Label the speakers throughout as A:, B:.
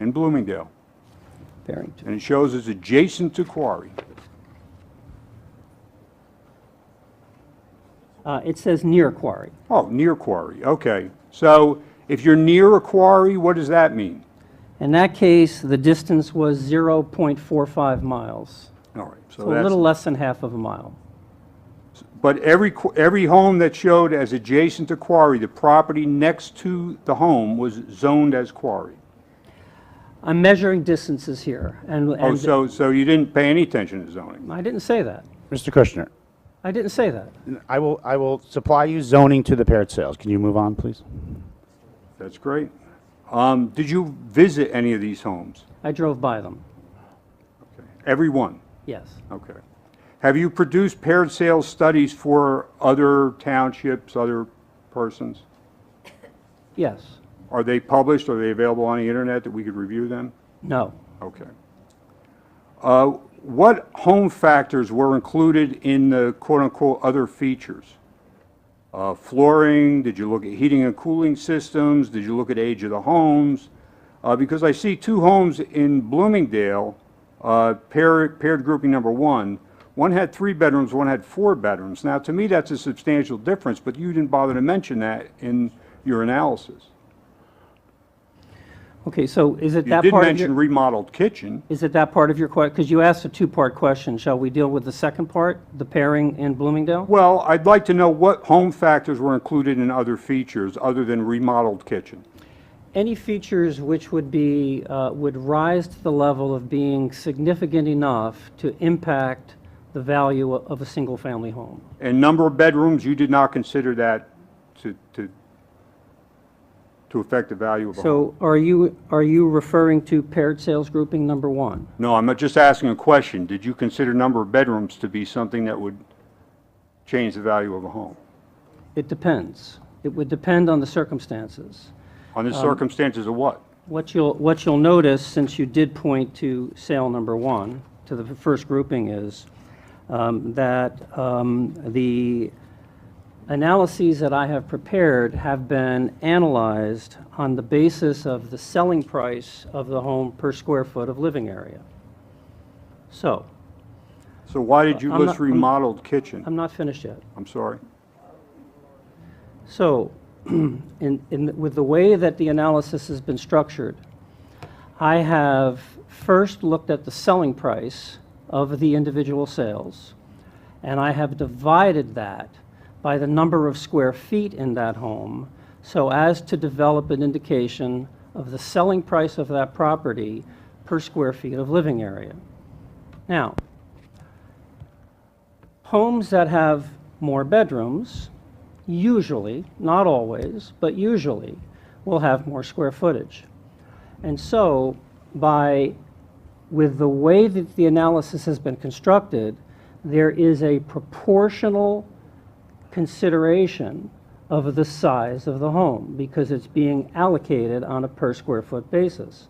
A: in Bloomingdale,
B: Barrington.
A: and it shows it's adjacent to quarry.
B: Uh, It says near quarry.
A: Oh, near quarry, okay. So if you're near a quarry, what does that mean?
B: In that case, the distance was 0.45 miles,
A: All right, so
B: so a little
A: that's,
B: less than half of a mile.
A: but every, qu- every home that showed as adjacent to quarry, the property next to the home was zoned as quarry.
B: I'm measuring distances here, and,
A: Oh,
B: and
A: so, so you didn't pay any attention to zoning?
B: I didn't say that.
C: Mr. Kushner,
B: I didn't say that.
C: I will, I will supply you zoning to the paired sales. Can you move on, please?
A: That's great. Um, Did you visit any of these homes?
B: I drove by them,
A: Okay. Every one?
B: yes.
A: Okay. Have you produced paired sales studies for other townships, other persons?
B: Yes.
A: Are they published? Are they available on the internet that we could review them?
B: No.
A: Okay. Uh, What home factors were included in the quote-unquote "other features"? Uh, Flooring, did you look at heating and cooling systems? Did you look at age of the homes? Uh, Because I see two homes in Bloomingdale, uh, paired paired grouping number one. One had three bedrooms, one had four bedrooms. Now, to me, that's a substantial difference, but you didn't bother to mention that in your analysis.
B: Okay, so is it
A: You
B: that
A: did
B: part of
A: mention
B: your,
A: remodeled kitchen.
B: is it that part of your question? Because you asked a two-part question. Shall we deal with the second part, the pairing in Bloomingdale?
A: Well, I'd like to know what home factors were included in other features other than remodeled kitchen.
B: Any features which would be, uh, would rise to the level of being significant enough to impact the value o- of a single-family home?
A: And number of bedrooms, you did not consider that to, to, to affect the value of a home.
B: So are you, are you referring to paired sales grouping number one?
A: No, I'm just asking a question. Did you consider number of bedrooms to be something that would change the value of a home?
B: It depends. It would depend on the circumstances.
A: On the circumstances of what?
B: What you'll, what you'll notice, since you did point to sale number one, to the first grouping, is um, that um, the analyses that I have prepared have been analyzed on the basis of the selling price of the home per square foot of living area. So,
A: So why did you
B: I'm
A: list
B: not- I'm-
A: remodeled kitchen?
B: I'm not finished yet.
A: I'm sorry.
B: So, in, in, with the way that the analysis has been structured, I have first looked at the selling price of the individual sales, and I have divided that by the number of square feet in that home so as to develop an indication of the selling price of that property per square feet of living area. Now, homes that have more bedrooms usually, not always, but usually, will have more square footage. And so, by, with the way that the analysis has been constructed, there is a proportional consideration of the size of the home because it's being allocated on a per square foot basis.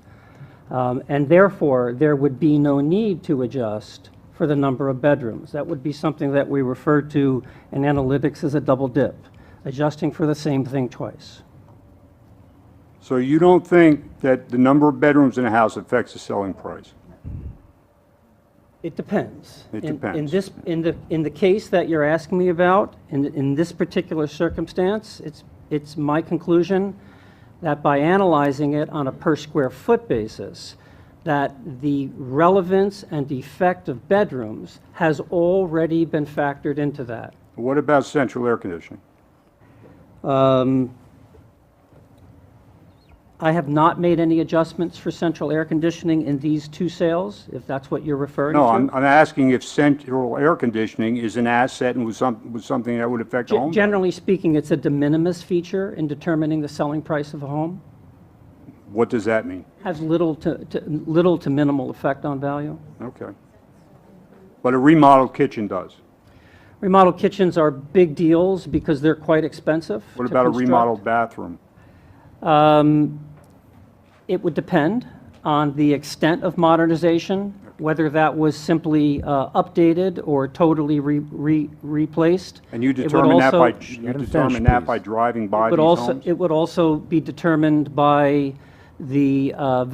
B: Um, And therefore, there would be no need to adjust for the number of bedrooms. That would be something that we refer to in analytics as a double dip, adjusting for the same thing twice.
A: So you don't think that the number of bedrooms in a house affects the selling price?
B: It depends.
A: It
B: In- In
A: depends.
B: this, in the, in the case that you're asking me about, in, in this particular circumstance, it's, it's my conclusion that by analyzing it on a per square foot basis, that the relevance and effect of bedrooms has already been factored into that.
A: What about central air conditioning?
B: Um, I have not made any adjustments for central air conditioning in these two sales, if that's what you're referring to.
A: No, I'm, I'm asking if central air conditioning is an asset and was some, was something that would affect the
B: Ge-
A: home. value.
B: Generally speaking, it's a de minimis feature in determining the selling price of a home.
A: What does that mean?
B: Has little to, to- little to minimal effect on value.
A: Okay. But a remodeled kitchen does.
B: Remodel kitchens are big deals because they're quite expensive
A: What
B: to
A: about a
B: construct.
A: remodeled bathroom?
B: It would depend on the extent of modernization, whether that was simply uh, updated or totally re- re- replaced.
A: And you
B: It would
A: determine that by,
B: also-
A: you
C: Let him
A: determine
C: finish,
A: that by
C: please.
A: driving by these
B: But also,
A: homes?
B: it would also be determined by the uh,